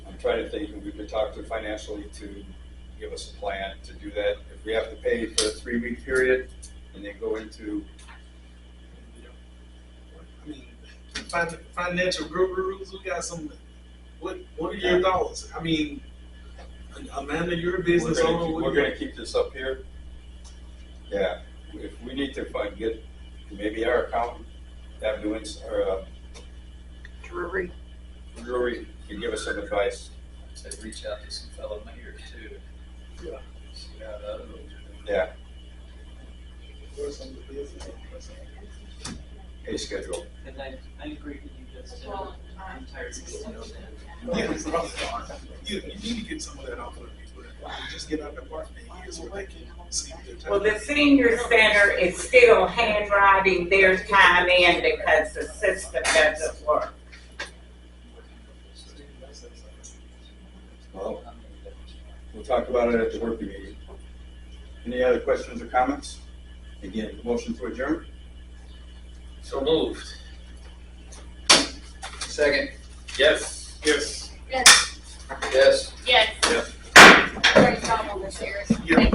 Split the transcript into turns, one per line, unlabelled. tried to think, and we could talk to financially to give us a plan to do that. If we have to pay for a three-week period and then go into,
I mean, fin- financial gurus, we got some, what, what are your thoughts? I mean, Amanda, you're a
we're
business
gonna,
owner.
keep-
what
we're
do you-
gonna keep this up here. Yeah, if we need to find, get, maybe our accountant, that doings, or, uh,
Drury.
Drury can give us some advice.
Say, reach out to some fellow mayors too.
Yeah.
See how that goes.
Yeah,
what are some of the business owners?
pay schedule.
And I, I agree with you, Justin. I'm tired of seeing those.
Yeah, it's probably hard. You, you need to get some of that off of people. Just get out the apartment years where they can see their time.
Well, the senior center is still handwriting their time in because the system doesn't work.
Oh.
Well, we'll talk about it at the working meeting. Any other questions or comments? Again, motion to adjourn?
So moved.
Second.
Yes.
Yes.
Yes.
Yes.
Yes.